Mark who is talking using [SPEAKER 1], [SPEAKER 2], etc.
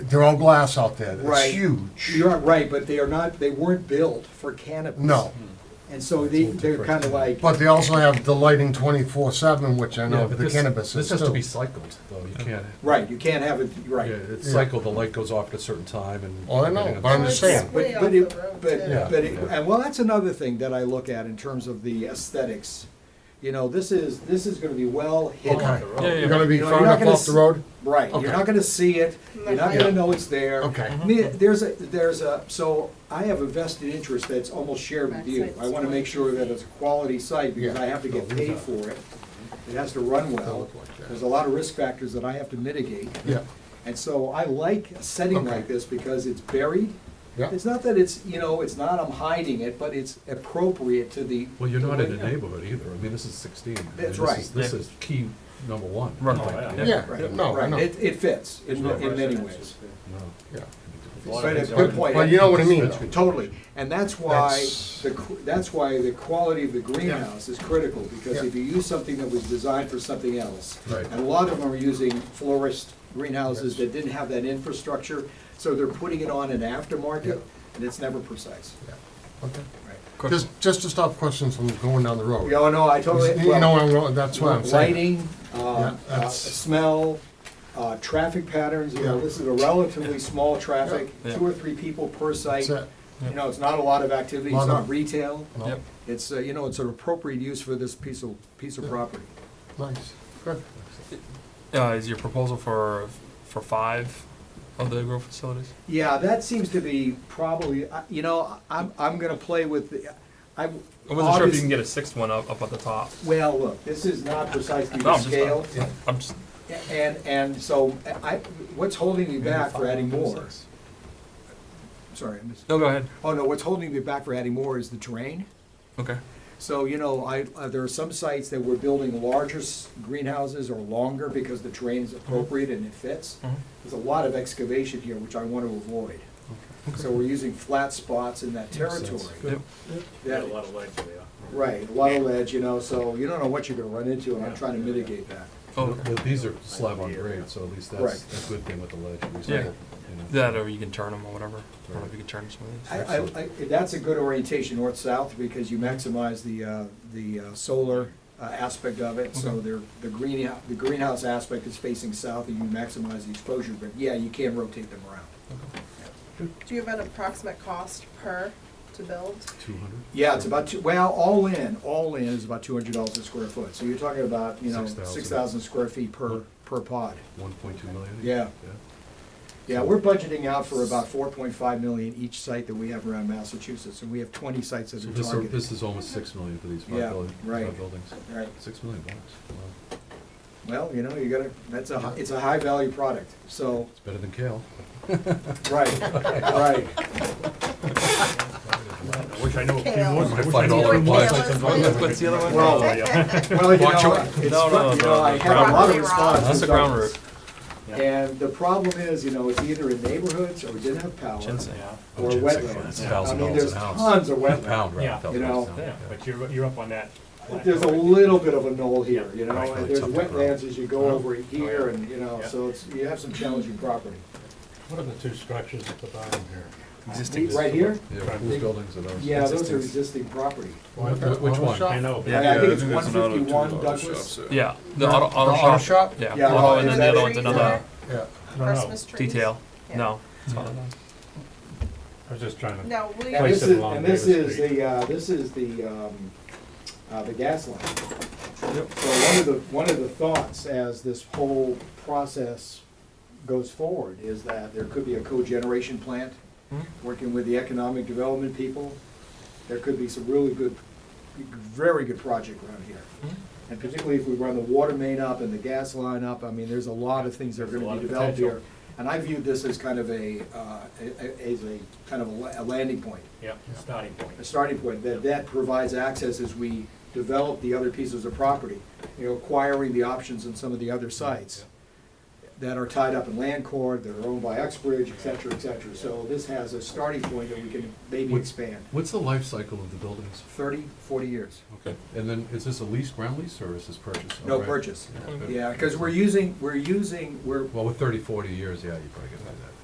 [SPEAKER 1] They're all glass out there.
[SPEAKER 2] Right.
[SPEAKER 1] It's huge.
[SPEAKER 2] You're not right, but they are not, they weren't built for cannabis.
[SPEAKER 1] No,
[SPEAKER 2] And so they, they're kind of like,
[SPEAKER 1] but they also have the lighting twenty-four seven, which I
[SPEAKER 3] Yeah,
[SPEAKER 1] know
[SPEAKER 3] but
[SPEAKER 1] the
[SPEAKER 3] this-
[SPEAKER 1] cannabis
[SPEAKER 3] This
[SPEAKER 1] is
[SPEAKER 3] has to
[SPEAKER 1] too.
[SPEAKER 3] be cycled, though, you can't,
[SPEAKER 2] right, you can't have it,
[SPEAKER 3] yeah,
[SPEAKER 2] right.
[SPEAKER 3] it's
[SPEAKER 1] Yeah.
[SPEAKER 3] cycled, the light goes off at a certain time and.
[SPEAKER 1] Oh, I know,
[SPEAKER 3] everything
[SPEAKER 1] but I'm
[SPEAKER 3] else.
[SPEAKER 1] just saying.
[SPEAKER 2] But, but
[SPEAKER 4] Way off
[SPEAKER 2] it,
[SPEAKER 4] the road,
[SPEAKER 2] but,
[SPEAKER 4] too.
[SPEAKER 1] Yeah.
[SPEAKER 2] but, it- and well, that's another thing that I look at in terms of the aesthetics. You know, this is, this is gonna be well
[SPEAKER 1] Okay.
[SPEAKER 2] hidden.
[SPEAKER 5] Yeah, yeah,
[SPEAKER 1] You're gonna be
[SPEAKER 2] You know,
[SPEAKER 1] far
[SPEAKER 2] you're
[SPEAKER 1] enough
[SPEAKER 2] not gonna
[SPEAKER 1] off the
[SPEAKER 2] s-
[SPEAKER 1] road?
[SPEAKER 2] Right, you're
[SPEAKER 1] Okay.
[SPEAKER 2] not gonna see it, you're not
[SPEAKER 1] Yeah.
[SPEAKER 2] gonna know it's there.
[SPEAKER 1] Okay.
[SPEAKER 2] I mean, there's a, there's a, so I have a vested interest that's almost shared with you. I wanna make sure that it's a quality site because
[SPEAKER 1] Yeah.
[SPEAKER 2] I have to get
[SPEAKER 1] No,
[SPEAKER 2] paid for it. It has to run well.
[SPEAKER 1] look like that.
[SPEAKER 2] There's a lot of risk factors that I have to mitigate.
[SPEAKER 1] Yeah,
[SPEAKER 2] And so I like a setting
[SPEAKER 1] Okay.
[SPEAKER 2] like this because it's buried.
[SPEAKER 1] yeah.
[SPEAKER 2] It's not that it's, you know, it's not I'm hiding it, but it's appropriate to the.
[SPEAKER 3] Well, you're
[SPEAKER 2] the
[SPEAKER 3] not
[SPEAKER 2] way
[SPEAKER 3] in a
[SPEAKER 2] now.
[SPEAKER 3] neighborhood either, I mean, this is sixteen. I mean,
[SPEAKER 2] That's
[SPEAKER 3] this
[SPEAKER 2] right.
[SPEAKER 3] is- This is key number one.
[SPEAKER 5] Right.
[SPEAKER 3] I
[SPEAKER 5] Oh,
[SPEAKER 3] think.
[SPEAKER 5] yeah.
[SPEAKER 1] Yeah,
[SPEAKER 2] Right,
[SPEAKER 1] no, I
[SPEAKER 2] right.
[SPEAKER 1] know,
[SPEAKER 2] It, it fits in,
[SPEAKER 6] There's no
[SPEAKER 2] in many ways.
[SPEAKER 6] residences
[SPEAKER 3] No.
[SPEAKER 1] yeah.
[SPEAKER 2] But it's a
[SPEAKER 1] But,
[SPEAKER 2] good point.
[SPEAKER 1] but you know what I mean, though.
[SPEAKER 2] Totally. And that's why,
[SPEAKER 1] That's-
[SPEAKER 2] the qu- that's why the quality of the greenhouse is critical, because
[SPEAKER 1] Yeah.
[SPEAKER 2] if you use something that was designed for something else.
[SPEAKER 3] Right.
[SPEAKER 2] And a lot of them are using florist greenhouses that didn't have that infrastructure, so they're putting it on an
[SPEAKER 1] Yeah.
[SPEAKER 2] aftermarket, and it's never precise.
[SPEAKER 1] Okay.
[SPEAKER 2] Right.
[SPEAKER 1] Just, just to stop questions from going down the road.
[SPEAKER 2] Yeah, no, I totally.
[SPEAKER 1] You know, where I'm going- that's what I'm saying.
[SPEAKER 2] Lighting, uh,
[SPEAKER 1] Yeah,
[SPEAKER 2] uh,
[SPEAKER 1] that's-
[SPEAKER 2] smell, uh, traffic patterns, you know,
[SPEAKER 1] Yeah.
[SPEAKER 2] this is a relatively small traffic,
[SPEAKER 5] Yeah.
[SPEAKER 2] two or three people per site.
[SPEAKER 1] That's it.
[SPEAKER 2] You know, it's not a lot of activity, it's
[SPEAKER 1] Lot
[SPEAKER 2] not
[SPEAKER 1] of-
[SPEAKER 2] retail,
[SPEAKER 1] No,
[SPEAKER 5] Yep.
[SPEAKER 2] it's, uh, you know, it's an appropriate use for this piece of, piece of property.
[SPEAKER 1] Nice, good.
[SPEAKER 5] Uh, is your proposal for, for five of the grow facilities?
[SPEAKER 2] Yeah, that seems to be probably, I- you know, I'm, I'm gonna play with the, I.
[SPEAKER 5] I wasn't sure if you can get a sixth one up, up at the top.
[SPEAKER 2] Well, look, this is not precisely
[SPEAKER 5] No,
[SPEAKER 2] the
[SPEAKER 5] I'm just-
[SPEAKER 2] scale,
[SPEAKER 5] I'm just,
[SPEAKER 2] and, and so, I, what's holding me back for adding more? Sorry, I missed.
[SPEAKER 5] no, go ahead.
[SPEAKER 2] Oh, no, what's holding me back for adding more is the terrain.
[SPEAKER 5] Okay.
[SPEAKER 2] So, you know, I, uh, there are some sites that we're building larger s- greenhouses or longer because the terrain is appropriate and it fits.
[SPEAKER 5] Mhm.
[SPEAKER 2] There's a lot of excavation here, which I want to avoid. So we're using flat spots in that territory.
[SPEAKER 5] Yep.
[SPEAKER 6] Got
[SPEAKER 2] That-
[SPEAKER 6] a lot of legs there.
[SPEAKER 2] Right, a lot of ledge, you know, so you don't know what you're gonna run into, and I'm
[SPEAKER 6] Yeah.
[SPEAKER 2] trying to mitigate that.
[SPEAKER 5] Oh, okay.
[SPEAKER 3] But These are slab on grade, so at least that's
[SPEAKER 2] Correct.
[SPEAKER 3] a good thing with the ledge. at least
[SPEAKER 5] Yeah.
[SPEAKER 3] it'll, you know.
[SPEAKER 5] That or you can turn them or whatever. I don't know if you can turn some of these.
[SPEAKER 2] I, I, I, that's a good orientation, north-south, because you maximize the, uh, the uh, solar uh, aspect of it. So
[SPEAKER 5] Okay.
[SPEAKER 2] there, the greenhouse, the greenhouse aspect is facing south, and you maximize the exposure, but yeah, you can rotate them around.
[SPEAKER 4] Do you have an approximate cost per to build?
[SPEAKER 3] 200?
[SPEAKER 2] Yeah, it's about, two- well, all in, all in is about two hundred dollars a square foot, so you're talking about, you know,
[SPEAKER 3] 6,000.
[SPEAKER 2] six thousand square feet per, per pod.
[SPEAKER 3] 1.2 million?
[SPEAKER 2] Yeah. Yeah, we're budgeting out for about four point five million each site that we have around Massachusetts, and we have twenty sites that
[SPEAKER 3] So
[SPEAKER 2] are
[SPEAKER 3] this, are- this
[SPEAKER 2] targeted.
[SPEAKER 3] is almost 6 million for these
[SPEAKER 2] Yeah,
[SPEAKER 3] five building-
[SPEAKER 2] right.
[SPEAKER 3] five buildings.
[SPEAKER 2] Right,
[SPEAKER 3] 6 million bucks, wow.
[SPEAKER 2] well, you know, you gotta, that's a, hi- it's a high-value product, so,
[SPEAKER 3] It's better than kale.
[SPEAKER 2] right, right.
[SPEAKER 6] I wish I knew a few
[SPEAKER 4] Kale.
[SPEAKER 6] more.
[SPEAKER 3] I fight all
[SPEAKER 4] Kale
[SPEAKER 3] the
[SPEAKER 4] is
[SPEAKER 3] bugs.
[SPEAKER 4] really-
[SPEAKER 5] What's the other one?
[SPEAKER 2] Well,
[SPEAKER 6] Oh, yeah.
[SPEAKER 2] well, you know,
[SPEAKER 5] Watch your-
[SPEAKER 2] it's, fu- you
[SPEAKER 5] No, no, no,
[SPEAKER 2] know, I
[SPEAKER 5] no,
[SPEAKER 2] had a lot of
[SPEAKER 4] ground root.
[SPEAKER 2] responses.
[SPEAKER 5] That's the ground root.
[SPEAKER 2] And the problem is, you know, it's either in neighborhoods or we didn't have power.
[SPEAKER 5] Ginseng.
[SPEAKER 2] Or
[SPEAKER 3] Ginseng,
[SPEAKER 2] wetlands.
[SPEAKER 3] yeah.
[SPEAKER 2] I
[SPEAKER 3] Thousand
[SPEAKER 2] mean,
[SPEAKER 3] dollars
[SPEAKER 2] there's
[SPEAKER 3] an ounce.
[SPEAKER 2] tons of
[SPEAKER 3] A Pound,
[SPEAKER 2] wetlands.
[SPEAKER 3] right?
[SPEAKER 6] Yeah.
[SPEAKER 3] Thousand
[SPEAKER 2] You
[SPEAKER 3] bucks
[SPEAKER 2] know,
[SPEAKER 3] an
[SPEAKER 6] Yeah,
[SPEAKER 3] ounce,
[SPEAKER 6] But you're, you're up on that.
[SPEAKER 2] There's a little bit of a knoll here, you know,
[SPEAKER 3] Right.
[SPEAKER 2] and there's
[SPEAKER 3] Something wrong.
[SPEAKER 2] wetlands as you go over here and, you know,
[SPEAKER 6] Yeah.
[SPEAKER 2] so it's, you have some challenging property.
[SPEAKER 7] What are the two structures at the bottom here?
[SPEAKER 5] Existing.
[SPEAKER 2] Right here?
[SPEAKER 3] Yeah, Yeah, whose buildings are those?
[SPEAKER 2] Yeah, those are existing property.
[SPEAKER 3] Wh- wh- Which one?
[SPEAKER 7] I know, but
[SPEAKER 5] Yeah.
[SPEAKER 2] I think it's
[SPEAKER 8] there's
[SPEAKER 2] one
[SPEAKER 8] another two
[SPEAKER 2] fifty-one
[SPEAKER 8] auto
[SPEAKER 2] Douglas.
[SPEAKER 8] shops there.
[SPEAKER 5] Yeah, the auto,
[SPEAKER 1] The
[SPEAKER 5] auto shop.
[SPEAKER 1] auto shop?
[SPEAKER 5] Yeah,
[SPEAKER 2] Yeah, Oh,
[SPEAKER 5] auto, and
[SPEAKER 2] is
[SPEAKER 5] then the
[SPEAKER 2] that
[SPEAKER 5] other
[SPEAKER 2] it?
[SPEAKER 5] one's
[SPEAKER 4] Trees
[SPEAKER 5] another
[SPEAKER 4] there?
[SPEAKER 1] Yeah,
[SPEAKER 7] I don't know.
[SPEAKER 4] Christmas trees?
[SPEAKER 5] detail.
[SPEAKER 4] Yeah.
[SPEAKER 5] No. it's not another.
[SPEAKER 7] I was just trying to,
[SPEAKER 4] No, we,
[SPEAKER 2] And
[SPEAKER 7] Place
[SPEAKER 2] this
[SPEAKER 4] yeah,
[SPEAKER 7] it
[SPEAKER 2] is,
[SPEAKER 7] along
[SPEAKER 2] and this
[SPEAKER 7] Davis
[SPEAKER 2] is
[SPEAKER 7] Street.
[SPEAKER 2] the, uh, this is the, um, uh, the gas line. So one of the, one of the thoughts as this whole process goes forward is that there could be a cogeneration plant, working with the economic development people. There could be some really good, very good project around here.
[SPEAKER 6] Hmm?
[SPEAKER 2] And particularly if we run the water main up and the gas line up, I mean, there's a lot of things that are
[SPEAKER 6] There's a
[SPEAKER 2] gonna
[SPEAKER 6] lot
[SPEAKER 2] be
[SPEAKER 6] of
[SPEAKER 2] developed
[SPEAKER 6] potential.
[SPEAKER 2] here. And I view this as kind of a, uh, a- a- as a, kind of a la- a landing point,
[SPEAKER 6] Yeah, starting point.
[SPEAKER 2] a starting point, that that provides access as we develop the other pieces of property, you know, acquiring the options in some of the other sites that are tied up in land court, that are owned by Uxbridge, et cetera, et cetera. So this has a starting point that we can maybe
[SPEAKER 3] Would-
[SPEAKER 2] expand,
[SPEAKER 3] What's the life cycle of the buildings?
[SPEAKER 2] 30, 40 years.
[SPEAKER 3] Okay, and then is this a lease, ground lease, or is this purchase?
[SPEAKER 2] No
[SPEAKER 3] Outright?
[SPEAKER 2] purchase.
[SPEAKER 3] Okay.
[SPEAKER 2] Yeah, because we're using, we're using, we're,
[SPEAKER 3] Well, with 30, 40 years, yeah, you probably get